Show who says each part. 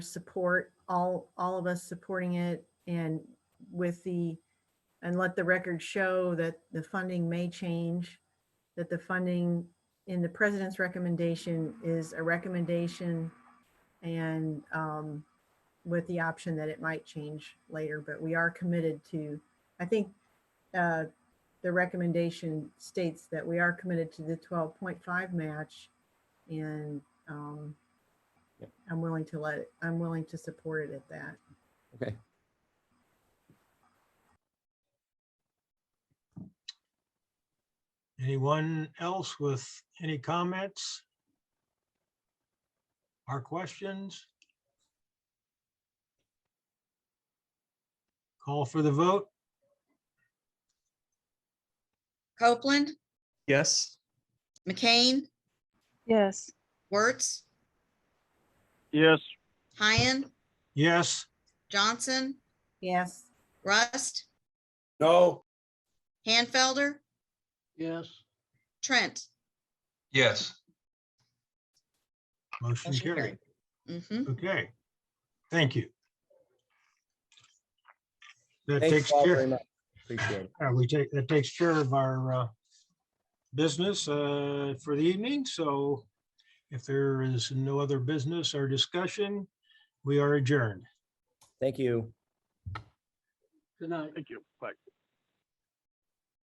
Speaker 1: support, all, all of us supporting it and with the, and let the record show that the funding may change, that the funding in the president's recommendation is a recommendation and um, with the option that it might change later, but we are committed to, I think uh, the recommendation states that we are committed to the 12.5 match and um, I'm willing to let, it. I'm willing to support it at that.
Speaker 2: Okay.
Speaker 3: Anyone else with any comments? Or questions? Call for the vote?
Speaker 4: Copeland,
Speaker 5: Yes.
Speaker 4: McCain,
Speaker 6: Yes,
Speaker 4: Wertz,
Speaker 5: Yes.
Speaker 4: Hyen,
Speaker 3: Yes,
Speaker 4: Johnson,
Speaker 1: Yes,
Speaker 4: Rust,
Speaker 5: No.
Speaker 4: Hanfelder,
Speaker 5: Yes.
Speaker 4: Trent.
Speaker 7: Yes,
Speaker 3: motion
Speaker 4: Motion
Speaker 3: carried.
Speaker 4: carried. hmm
Speaker 3: Okay, thank you. That
Speaker 2: Thanks
Speaker 3: takes
Speaker 2: all
Speaker 3: care.
Speaker 2: very much. Appreciate it.
Speaker 3: Uh, we take, that takes care of our uh, business uh, for the evening, so if there is no other business or discussion, we are adjourned.
Speaker 2: Thank you.
Speaker 8: Good night. Thank you. Bye.